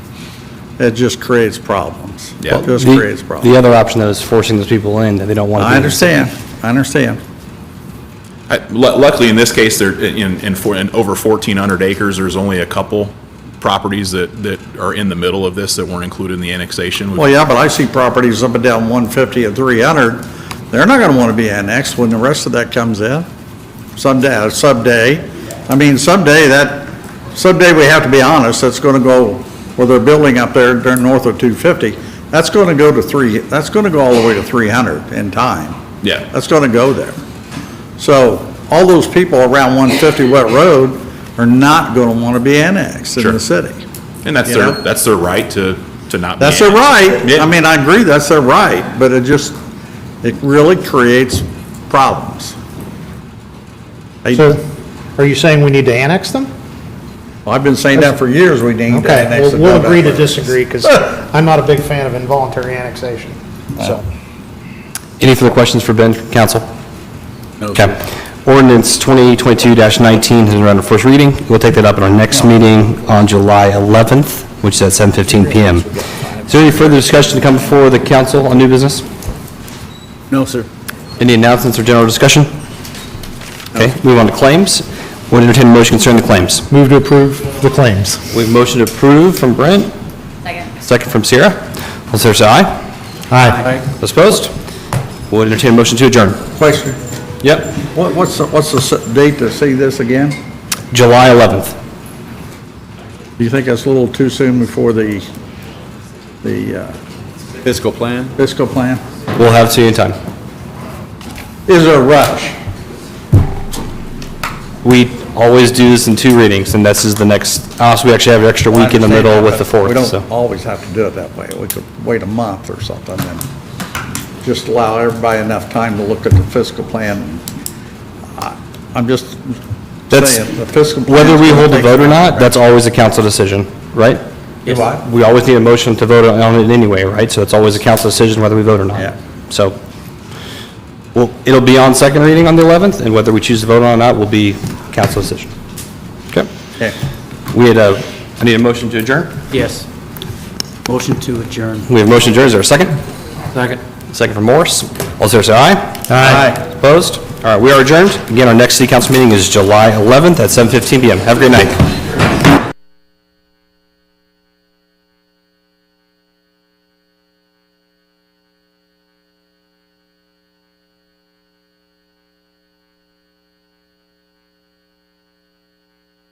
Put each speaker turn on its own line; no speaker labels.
It just creates problems.
Yeah.
It just
The-
creates problems.
The other option, though, is forcing those people in that they don't want to be.
I understand, I understand.
I- lu- Luckily, in this case, there, in, in, for- in over 1,400 acres, there's only a couple properties that, that are in the middle of this that weren't included in the annexation.
Well, yeah, but I see properties up and down 150 and 300, they're not going to want to be annexed when the rest of that comes in. Someday, uh, someday, I mean, someday that, someday we have to be honest, that's going to go, where they're building up there, they're north of 250, that's going to go to 3, that's going to go all the way to 300 in time.
Yeah,
That's going to go there. So all those people around 150 Wet Road are not going to want to be annexed in
Sure.
the city.
and that's
You
their,
know?
that's their right to, to not be.
That's their
annexed.
right.
Yeah.
I mean, I agree, that's their right, but it just, it really creates problems. I-
So are you saying we need to annex them?
I've been saying that for years, we need to
Okay,
annex
well,
the
we'll agree to
Dunbar.
disagree because I'm not a big fan of involuntary annexation, so.
Any further questions for Ben, council? Okay. Ordinance 2022-19 has been on first reading. We'll take that up at our next meeting on July 11th, which is at 7:15 PM. Is there any further discussion to come before the council on new business?
No, sir.
Any announcements or general discussion? Okay, move on to claims. We'll entertain a motion concerning the claims.
Move to approve the claims.
We have motion to approve from Brent,
Second.
second from Sierra. All in favor, say aye.
Aye.
Those Opposed? We'll entertain a motion to adjourn.
Question,
Yep.
what, what's, the- what's the s- date to see this again?
July 11th.
Do you think that's a little too soon before the, the uh,
Fiscal plan?
fiscal plan?
We'll have it to you in time.
Is there a rush?
We always do this in two readings, and this is the next, also, we actually have an extra week in the middle with the
uh, We
4th, so.
don't always have to do it that way. We could wait a month or something and just allow everybody enough time to look at the fiscal plan. I- I'm just
That's-
saying, the fiscal. plan's
Whether we
gonna
hold the
take-
vote or not, that's always a council decision, right?
Do I?
We always need a motion to vote on it anyway, right? So it's always a council decision whether we vote or not.
Yeah.
So, well, it'll be on second reading on the 11th, and whether we choose to vote on it or not will be council decision. Okay?
Okay.
We had a, I need a motion to adjourn?
Yes. Motion to adjourn.
We have motion adjourned, is there a second?
Second.
Second from Morse. All in favor, say aye.
Aye.
Opposed? All right, we are adjourned. Again, our next city council meeting is July 11th at 7:15 PM. Have a great night.